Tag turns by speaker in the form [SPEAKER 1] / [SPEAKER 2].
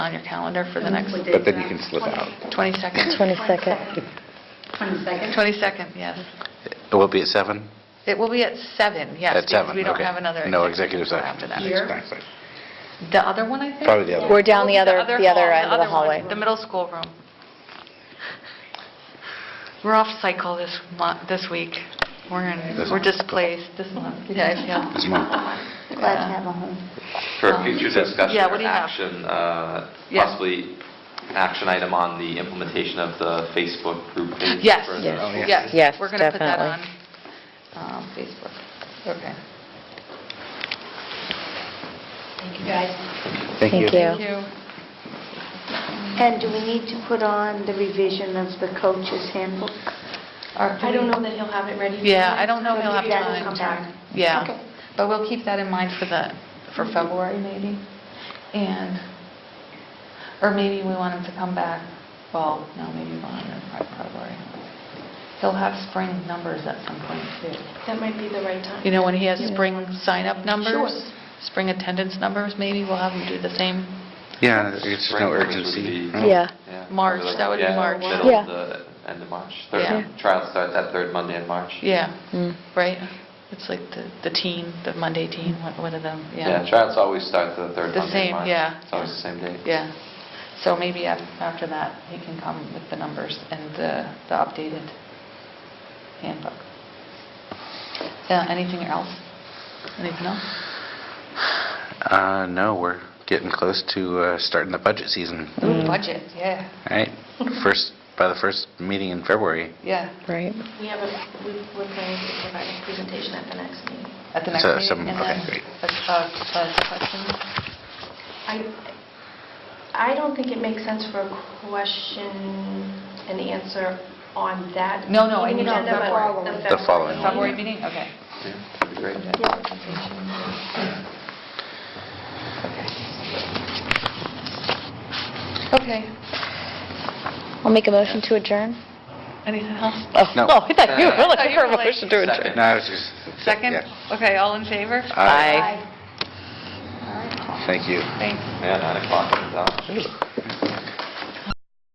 [SPEAKER 1] on your calendar for the next
[SPEAKER 2] What
[SPEAKER 3] Mm-hmm.
[SPEAKER 2] day is
[SPEAKER 4] But then you
[SPEAKER 2] that?
[SPEAKER 4] can slip out.
[SPEAKER 1] 22nd?
[SPEAKER 3] 22nd.
[SPEAKER 2] 22nd?
[SPEAKER 1] 22nd, yes.
[SPEAKER 4] It will be at seven?
[SPEAKER 1] It will be at seven. yes.
[SPEAKER 4] At
[SPEAKER 1] because
[SPEAKER 4] seven,
[SPEAKER 1] We don't
[SPEAKER 4] okay.
[SPEAKER 1] have another
[SPEAKER 4] No
[SPEAKER 1] executive
[SPEAKER 4] executive
[SPEAKER 1] session
[SPEAKER 4] session.
[SPEAKER 1] after
[SPEAKER 2] Here?
[SPEAKER 1] that. The other one, I think?
[SPEAKER 4] Probably the other one.
[SPEAKER 3] We're down the
[SPEAKER 1] Oh,
[SPEAKER 3] other, the other
[SPEAKER 1] hall,
[SPEAKER 3] end of the
[SPEAKER 1] other one,
[SPEAKER 3] hallway.
[SPEAKER 1] The middle school room. We're off cycle this month, this week. We're
[SPEAKER 4] This
[SPEAKER 1] in, we're
[SPEAKER 4] month.
[SPEAKER 1] displaced this month. Yeah, I feel-
[SPEAKER 4] This month.
[SPEAKER 5] Glad to have a home.
[SPEAKER 6] For
[SPEAKER 1] Um,
[SPEAKER 6] future discussion
[SPEAKER 1] yeah, what
[SPEAKER 6] or
[SPEAKER 1] do you have?
[SPEAKER 6] action, uh,
[SPEAKER 1] Yeah.
[SPEAKER 6] possibly action item on the implementation of the Facebook group page?
[SPEAKER 1] Yes,
[SPEAKER 6] for the
[SPEAKER 4] Yes.
[SPEAKER 6] school
[SPEAKER 4] Oh, yeah.
[SPEAKER 1] yes.
[SPEAKER 3] Yes,
[SPEAKER 1] We're going to put that on
[SPEAKER 3] definitely.
[SPEAKER 1] um, Facebook. Okay.
[SPEAKER 2] Thank you, guys.
[SPEAKER 4] Thank you.
[SPEAKER 3] Thank you.
[SPEAKER 5] And do we need to put on the revision of the coach's handbook? Or do
[SPEAKER 7] I don't
[SPEAKER 5] we-
[SPEAKER 7] know that he'll have it ready. for
[SPEAKER 1] Yeah,
[SPEAKER 7] you.
[SPEAKER 1] I don't know if he'll have
[SPEAKER 7] Maybe that will
[SPEAKER 1] time.
[SPEAKER 7] come back.
[SPEAKER 1] Yeah, Mm-hmm.
[SPEAKER 5] Okay.
[SPEAKER 1] but we'll keep that in mind for the, for February maybe, and, or maybe we want him to come back, well, no, maybe not in February. He'll have spring numbers at some point too.
[SPEAKER 7] That might be the right time.
[SPEAKER 1] You know, when he has spring sign-up numbers, spring attendance numbers, maybe we'll have him do the same.
[SPEAKER 4] Yeah, it's just
[SPEAKER 6] Spring
[SPEAKER 4] no
[SPEAKER 6] numbers would
[SPEAKER 4] urgency.
[SPEAKER 6] be-
[SPEAKER 4] right?
[SPEAKER 3] Yeah.
[SPEAKER 6] Yeah,
[SPEAKER 1] March,
[SPEAKER 6] probably like-
[SPEAKER 1] that would be
[SPEAKER 6] yeah,
[SPEAKER 1] March.
[SPEAKER 6] Middle
[SPEAKER 3] Yeah.
[SPEAKER 6] of the, end of March.
[SPEAKER 1] Yeah.
[SPEAKER 6] Third, trial starts that third Monday in March.
[SPEAKER 1] Yeah,
[SPEAKER 3] Mm.
[SPEAKER 1] right? It's like the the teen, the Monday teen, what what are them?
[SPEAKER 6] Yeah, trials always start the third
[SPEAKER 1] The
[SPEAKER 6] Monday
[SPEAKER 1] same,
[SPEAKER 6] in March.
[SPEAKER 1] yeah.
[SPEAKER 6] It's always the same day.
[SPEAKER 1] Yeah, so maybe af- after that, he can come with the numbers and the the updated handbook. Uh, Anything else? Anything else?
[SPEAKER 4] Uh, no, we're getting close to uh, starting the budget season.
[SPEAKER 1] Ooh, budget, yeah,
[SPEAKER 4] All right, first, by the first meeting in February.
[SPEAKER 1] yeah,
[SPEAKER 3] Right.
[SPEAKER 7] We have a, we- we're planning to provide a presentation at the next meeting.
[SPEAKER 1] at the next
[SPEAKER 4] So,
[SPEAKER 1] meeting.
[SPEAKER 4] some-
[SPEAKER 1] and
[SPEAKER 4] okay,
[SPEAKER 1] then
[SPEAKER 4] great.
[SPEAKER 1] a- a- a question?
[SPEAKER 7] I, I don't think it makes sense for a question and answer on that.
[SPEAKER 1] No, no, I
[SPEAKER 7] meeting
[SPEAKER 1] mean on
[SPEAKER 7] agenda, but
[SPEAKER 1] February.
[SPEAKER 7] the
[SPEAKER 1] The
[SPEAKER 7] February
[SPEAKER 4] following
[SPEAKER 7] meeting.
[SPEAKER 1] February meeting, okay.
[SPEAKER 6] Yeah, that'd be great.
[SPEAKER 1] Okay,
[SPEAKER 3] I'll make a motion to adjourn.
[SPEAKER 1] anything else?
[SPEAKER 3] Oh,
[SPEAKER 4] No.
[SPEAKER 3] I thought you were
[SPEAKER 1] Thought
[SPEAKER 3] looking
[SPEAKER 1] you
[SPEAKER 3] for a
[SPEAKER 1] were like-
[SPEAKER 3] motion to adjourn.
[SPEAKER 6] Second.
[SPEAKER 4] No, I was just...
[SPEAKER 1] Second?
[SPEAKER 4] yeah.
[SPEAKER 1] Okay, all in favor?
[SPEAKER 4] All right,
[SPEAKER 3] Aye.
[SPEAKER 4] Thank you.
[SPEAKER 1] Thanks.
[SPEAKER 6] Yeah, 9 o'clock, it's out.
[SPEAKER 4] Ooh.